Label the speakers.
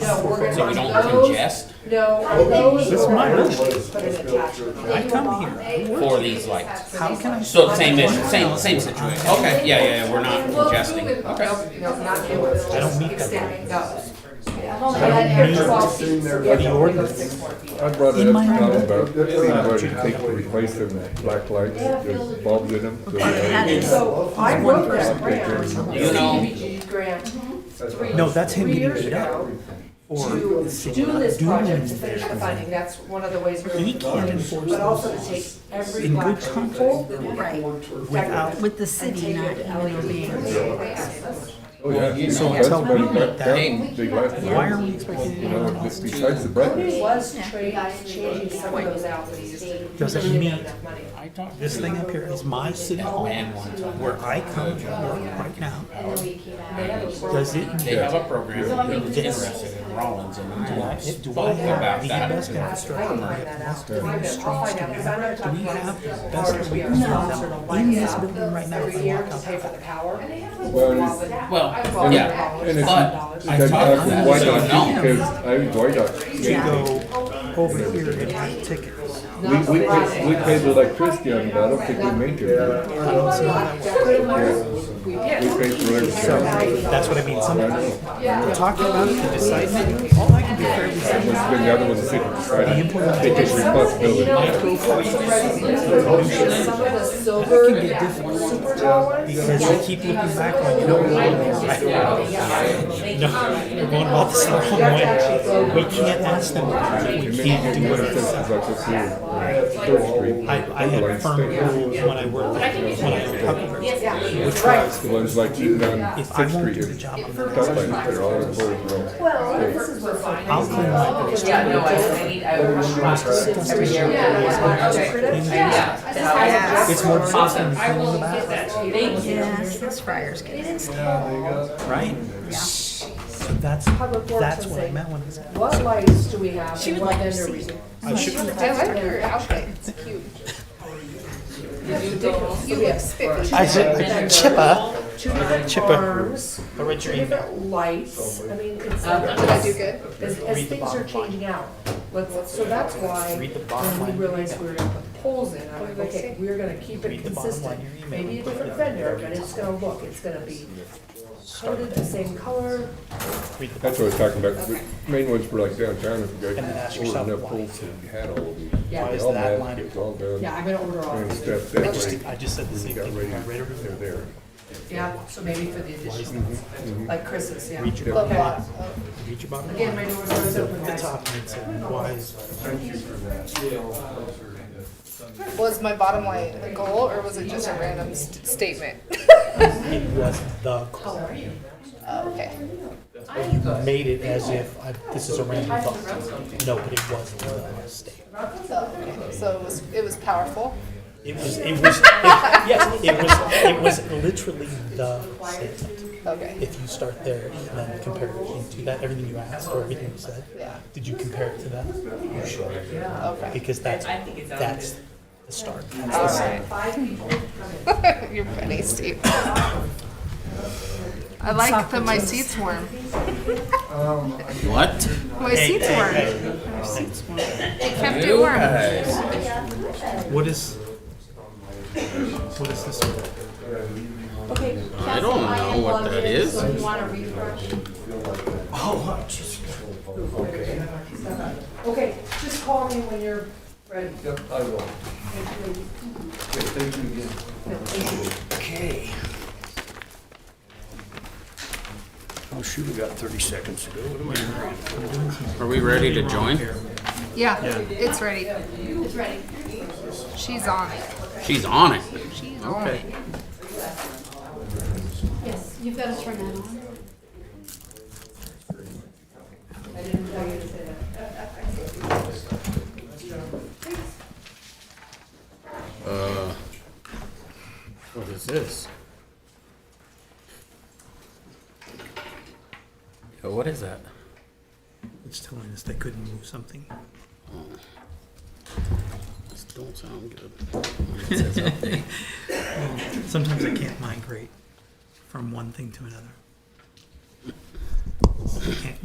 Speaker 1: so we don't congest
Speaker 2: No, those
Speaker 3: Oh, This is
Speaker 2: were
Speaker 3: my room.
Speaker 2: originally put in a tax.
Speaker 3: I come here.
Speaker 1: for these lights?
Speaker 3: How can I?
Speaker 1: So same issue, same, same situation. Okay, yeah, yeah, yeah, we're not congesting. Okay.
Speaker 2: No, not the ordinance,
Speaker 3: I don't
Speaker 2: just
Speaker 3: meet them.
Speaker 2: extending those.
Speaker 4: I've only had
Speaker 3: need
Speaker 4: air twelve
Speaker 5: to
Speaker 4: feet.
Speaker 5: sing there.
Speaker 4: Yeah,
Speaker 5: The
Speaker 4: only goes
Speaker 3: ordinance.
Speaker 4: six more feet.
Speaker 5: I brought it
Speaker 3: In
Speaker 5: up
Speaker 3: my
Speaker 5: to Tom
Speaker 3: room.
Speaker 5: about seeing what it takes to replace them, black lights, the bulbs in them. so they-
Speaker 2: So I wrote that grant,
Speaker 1: You know,
Speaker 2: CDBG grant, three,
Speaker 3: No, that's him
Speaker 2: three
Speaker 3: getting
Speaker 2: years
Speaker 3: it up.
Speaker 2: ago.
Speaker 3: Or
Speaker 2: to do this project, to finish the funding, that's one of the ways we're.
Speaker 3: He can't enforce
Speaker 2: But also to
Speaker 3: those
Speaker 2: take every
Speaker 3: in
Speaker 2: black
Speaker 3: good
Speaker 2: sheep,
Speaker 3: conscience.
Speaker 2: hold the black
Speaker 6: Right.
Speaker 3: without,
Speaker 6: With the city
Speaker 2: sheep,
Speaker 6: not even
Speaker 2: LED
Speaker 6: being.
Speaker 2: for the access.
Speaker 5: Oh, yeah.
Speaker 1: So
Speaker 5: That's
Speaker 3: tell
Speaker 5: been-
Speaker 3: them
Speaker 5: that- that
Speaker 3: that-
Speaker 5: was big last
Speaker 3: why
Speaker 5: year.
Speaker 3: are we expecting
Speaker 5: You know,
Speaker 3: anyone else
Speaker 5: just
Speaker 3: to?
Speaker 5: besides the
Speaker 2: Cody
Speaker 5: brightness.
Speaker 2: was trading, changing some of those out, but he just didn't.
Speaker 3: Does it
Speaker 2: he didn't have
Speaker 3: meet-
Speaker 2: enough money.
Speaker 3: This thing up here is my city hall
Speaker 1: man one time.
Speaker 3: where I come to work right now.
Speaker 4: And then we came out.
Speaker 2: They have a
Speaker 3: Does it
Speaker 2: program.
Speaker 1: uh, They
Speaker 3: mean
Speaker 1: have a program that was interested in Rollins and I spoke
Speaker 3: do I have
Speaker 1: about
Speaker 3: the
Speaker 1: that.
Speaker 3: best
Speaker 1: to-
Speaker 2: I can find that out.
Speaker 3: infrastructure?
Speaker 2: I'll find out, because I'm not
Speaker 3: Do we
Speaker 2: talking about
Speaker 3: have the
Speaker 2: as far as
Speaker 3: best
Speaker 2: we are sponsored to light
Speaker 3: infrastructure in this
Speaker 2: up
Speaker 3: building right now?
Speaker 2: every
Speaker 3: If I
Speaker 2: year
Speaker 3: walk
Speaker 2: to
Speaker 3: out
Speaker 2: pay for the power.
Speaker 5: Well,
Speaker 2: Well,
Speaker 5: it's-
Speaker 2: but-
Speaker 1: Well,
Speaker 2: I bought
Speaker 1: yeah,
Speaker 2: that.
Speaker 5: and
Speaker 1: but
Speaker 5: it's-
Speaker 1: I
Speaker 5: Because I
Speaker 1: talked to
Speaker 5: was
Speaker 1: them,
Speaker 5: white
Speaker 1: so
Speaker 5: out,
Speaker 1: no.
Speaker 5: because I
Speaker 3: you
Speaker 5: was white out.
Speaker 3: go over here and buy tickets.
Speaker 5: We, we, paid- we paid the electricity on it, I don't think we maintained it.
Speaker 2: We
Speaker 5: We
Speaker 2: did.
Speaker 5: paid for
Speaker 3: So
Speaker 5: everything.
Speaker 3: that's what I mean.
Speaker 5: I
Speaker 3: Sometimes
Speaker 5: know.
Speaker 3: we're talking about it, we decide it. All I can do for every
Speaker 5: It must have been the other one that said, right, they take responsibility.
Speaker 2: Some of the silver, super tall ones.
Speaker 3: because I keep looking back like, you know, right? No, we're going about this the wrong way. We can't ask them, we can't do whatever. I, I had firm rules when I worked, when I worked Huckleberry.
Speaker 2: Yeah, right.
Speaker 5: The ones like even on
Speaker 3: If I
Speaker 5: Fifth
Speaker 3: won't
Speaker 5: Street,
Speaker 3: do the
Speaker 5: it's
Speaker 3: job, I'm
Speaker 5: tough
Speaker 3: not.
Speaker 5: like that, they're all in the road.
Speaker 2: Well, this is what's fine.
Speaker 3: I'll clean my books.
Speaker 4: Yeah, no, I, I need, I would rush my, every year. Yeah,
Speaker 2: Yeah.
Speaker 4: Yeah.
Speaker 3: It's more exhausting than
Speaker 7: I
Speaker 3: filling
Speaker 7: will
Speaker 3: the
Speaker 7: get
Speaker 3: bathroom,
Speaker 7: that to you.
Speaker 6: Yes, those friars get it.
Speaker 3: right? So that's,
Speaker 2: Public Works
Speaker 3: that's
Speaker 2: will
Speaker 3: what I
Speaker 2: say,
Speaker 3: meant when I said.
Speaker 2: What lights do we have and what vendor we use?
Speaker 3: I should,
Speaker 2: You have spiffy.
Speaker 3: I said, Chippa,
Speaker 2: Two different
Speaker 3: Chipper.
Speaker 2: farms,
Speaker 3: a
Speaker 2: two
Speaker 3: retreat.
Speaker 2: different lights, Uh, I mean, it's.
Speaker 4: Did I do good?
Speaker 2: As, as things are changing out, let's, so that's why
Speaker 3: Read the bottom
Speaker 2: when
Speaker 3: line.
Speaker 2: we realized we were gonna put poles in, I'm like, okay, we're gonna keep it
Speaker 3: Read the bottom line
Speaker 2: consistent.
Speaker 3: of your email.
Speaker 2: Maybe a different vendor, but it's gonna look, it's gonna be coated the same color.
Speaker 3: Read the
Speaker 5: That's what I was talking about, the main ones were like downtown, if you
Speaker 3: And then
Speaker 5: guys
Speaker 3: ask
Speaker 5: ordered
Speaker 3: yourself
Speaker 5: enough
Speaker 3: why.
Speaker 5: poles, you had all of these.
Speaker 2: Yeah. Why
Speaker 5: They
Speaker 3: is
Speaker 5: all
Speaker 3: that
Speaker 5: had
Speaker 3: line-
Speaker 5: It's all done.
Speaker 2: Yeah, I'm gonna order all
Speaker 5: And
Speaker 2: of
Speaker 5: stuff
Speaker 2: these.
Speaker 5: that way,
Speaker 3: I just said the same
Speaker 5: got
Speaker 3: thing.
Speaker 5: ready,
Speaker 3: I read over
Speaker 5: they're there.
Speaker 2: Yeah, so maybe for the additional,
Speaker 5: Mm-hmm.
Speaker 2: like Chris's, yeah.
Speaker 3: Read your
Speaker 2: Okay.
Speaker 3: bottom Read your bottom
Speaker 2: Again, my door's always open,
Speaker 3: The
Speaker 2: guys.
Speaker 3: top and it said, why is
Speaker 7: Was my bottom line a goal or was it just a random st- statement?
Speaker 3: it wasn't the color?
Speaker 7: okay.
Speaker 3: Made it as if I, this is a random thought. No, but it wasn't the state.
Speaker 7: So, okay. so it was it was powerful.
Speaker 3: It was, it was, it, yes, it was, it was literally the statement.
Speaker 7: Okay.
Speaker 3: If you start there and then compare it to that, everything you asked or everything you said,
Speaker 7: Yeah.
Speaker 3: did you compare it to that? You should,
Speaker 7: Okay.
Speaker 3: because that's, that's the start.
Speaker 7: All right. You're funny, Steve. I like that my seat's warm.
Speaker 1: What?
Speaker 7: My seat's warm. It kept it
Speaker 1: You
Speaker 7: warm.
Speaker 1: guys.
Speaker 3: What is, what is this?
Speaker 1: I don't know what that is.
Speaker 2: Okay, just call me when you're ready.
Speaker 5: Yep, I will. Okay, thank you again.
Speaker 8: Okay. Oh shoot, I got 30 seconds to go. What am I doing?
Speaker 1: Are we ready to join?
Speaker 7: Yeah, it's ready. It's ready. She's on it.
Speaker 1: She's on it.
Speaker 7: She's on
Speaker 1: Okay.
Speaker 7: it.
Speaker 4: Yes, you've got to turn that on.
Speaker 1: Uh, what is this? Yeah, what is that?
Speaker 3: It's telling us they couldn't move something.
Speaker 1: This don't sound good.
Speaker 3: Sometimes I can't migrate from one thing to another. I can't